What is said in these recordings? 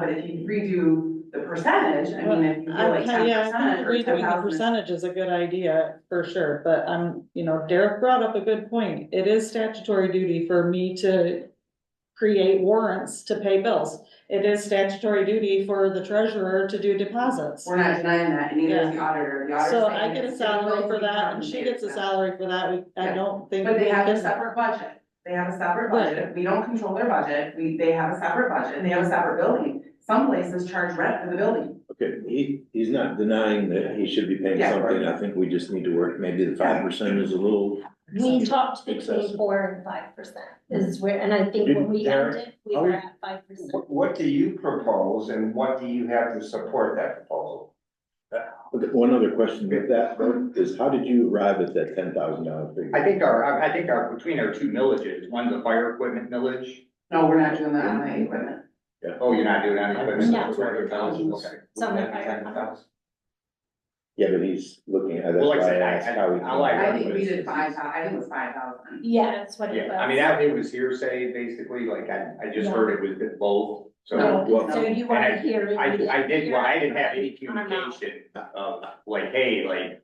but if you redo the percentage, I mean, if you do I like think, yeah, ten I percent think or ten redoing the thousand. percentage is a good idea for sure, but I'm, you know, Derek brought up a good point. It is statutory duty for me to create warrants to pay bills. It is statutory duty for the treasurer to do deposits. We're not denying that, and neither is the auditor, the auditor. So I get a salary for that and she gets a salary for that. We- I Yeah. don't think. But we they have a can- separate budget, they have a separate Right. budget, we don't control their budget, we, they have a separate budget, they have a separate building. Some places charge rent for the building, Okay, he, he's not denying that he should be paying Yeah, something, right. I think we just need to work, maybe the five percent is a little. We talked between Excessive. four and five percent is where, and I think when we Derek, ended, we are were we- at five percent. What, what do you propose and what do you have to support that proposal? Okay, one other question with that, though, is how did you arrive at that ten thousand dollar I figure? think our, I- I think our, between our two millages, one's a fire equipment millage, no, we're not doing that on the equipment. oh, you're not doing any equipment. No. it's $200,000, okay. Some of our- $10,000. Yeah, but he's looking at, that's Well, why like I I said, I- asked how he. I- I like- I think we did Everybody's- five, thou- I think it was five thousand. Yeah, that's what it Yeah, I mean, was. that, it was hearsay, basically, like, I, I just heard it was both, so. No. Well, So you want and to hear. it, I, we didn't I did, hear well, I it, didn't have any on amount. communication of, like, hey, like,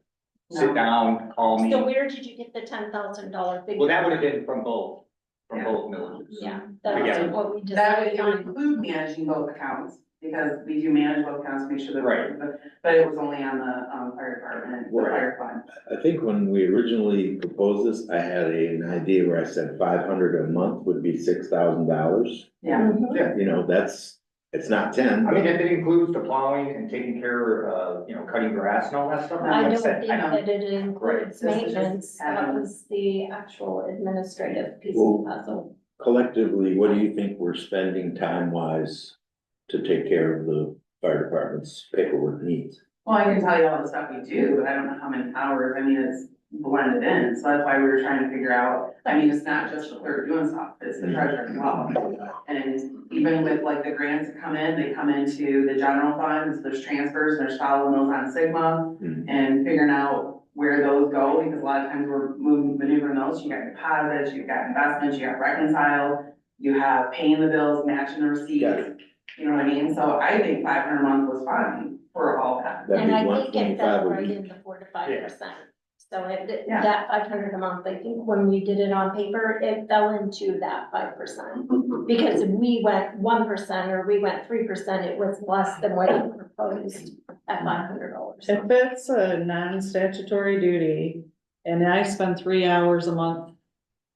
No. sit down, call me. So where did you get the ten thousand dollar figure? Well, that would have been from both, from both millages. Yeah, Yeah. that's what That we would decided it would on. include managing both accounts, because we do manage both accounts, make sure that. Right. But, but it was only on the, um, fire department, the Right. fire fund. I think when we originally proposed this, I had a- an idea where I said five hundred a month would be six thousand dollars. Yeah, Mm-hmm. You know, that's, it's not ten, I mean, but if it includes the plowing and taking care of, you know, cutting grass and all that stuff. I like don't said, think I- that it includes This is just maintenance, that add-ons. was the actual administrative piece Well, of the puzzle. collectively, what do you think we're spending time wise to take care of the fire department's paperwork needs? well, I can tell you all the stuff we do, but I don't know how many hours, I mean, it's blended in, so that's why we were trying to figure out. I mean, it's not just the clerk doing stuff, it's the treasurer as well. And even with like the grants that come in, they come into the general funds, there's transfers, there's following those on Sigma Mhm. and figuring out where those go, because a lot of times we're moving, maneuvering those, you got deposits, you've got investments, you got reconciled, you have paying the bills, matching the Got receipts, you know what I mean? So I think five hundred a month was fine for all that. That'd And be I one think it twenty-five fell a right week. in the four to five Yeah. percent. So it, Yeah. that five hundred a month, I think when we did it on paper, it fell into that five percent. Because if we went one percent or we went three percent, it was less than what you proposed at five hundred dollars. If it's a non-statutory duty and I spend three hours a month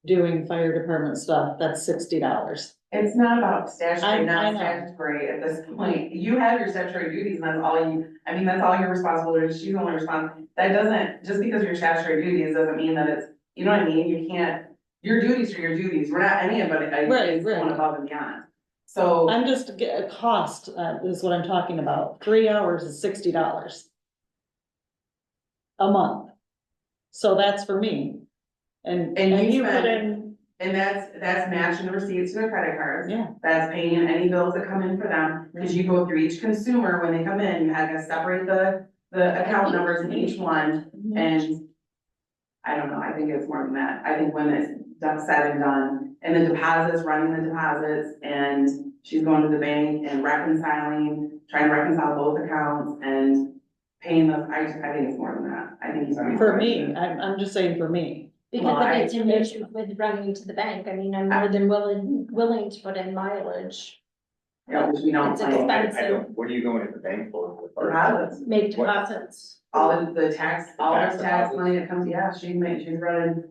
doing fire department stuff, that's sixty dollars. It's not about I- I statutory, not know. statutory at this point. You have your statutory duties and that's all you, I mean, that's all your responsibility. She's only responsible. That doesn't, just because your statutory duties doesn't mean that it's, you know what I mean? You can't, your duties are your duties. We're not any of it, Right, it's right. going above and beyond. So, I'm just, get- a cost uh, is what I'm talking about. Three hours is sixty dollars. A month. So that's for me. And, And and you you put spend- in, and that's, that's matching the receipts to the credit cards. yeah, Mm-hmm. That's paying any bills that come in for them. Cause you go through each consumer when they come in, you had to separate the, the account numbers in each one. And I don't know, I think it's more than that. I think when it's done, said and done, and the deposits, running the deposits, and she's going to the bank and reconciling, trying to reconcile both accounts and paying them, I, I think it's more than that. I think he's. for me, I'm, I'm just saying for me. Because if it's an issue with running to the bank, I mean, I'm more than willing, willing to put in mileage, Yeah, which we don't It's play. expensive. I I don't, what are you going to the bank for? with our- Deposits, make What? deposits. all of the tax, all of the tax Tax deposits. money that comes, yeah, she made, she's running. So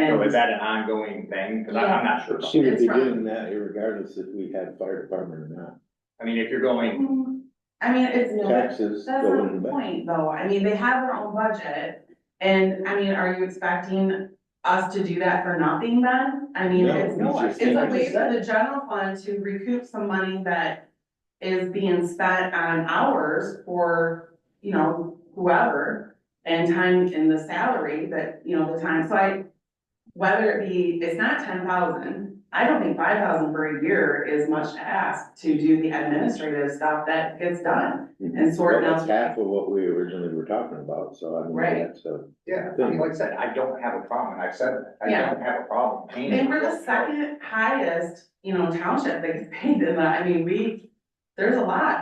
And is that an ongoing thing? Cause I- I'm not sure. about She would It's be fine. doing that regardless if we had fire department or I mean, if you're going, I mean, it's. not. Taxes That's go not in the the back. point, though, I mean, they have their own budget, and, I mean, are you expecting us to do that for nothing then? I mean, No, it's, no, I it's think a I way just for the general fund to recoup some money that is being spent on hours for, you know, whoever, and time in the salary that, you know, the time, so I, whether it be, it's not ten thousand, I don't think five thousand for a year is much to ask to do the administrative stuff that gets done. And sort But out- Mm-hmm. That's half of what we originally were talking about, so I mean, Right. that's a. yeah, I mean, like I said, I don't have a problem, and I've said that, I Yeah. don't have a problem paying. And we're the second highest, you know, township that gets paid in that, I mean, we, there's a lot.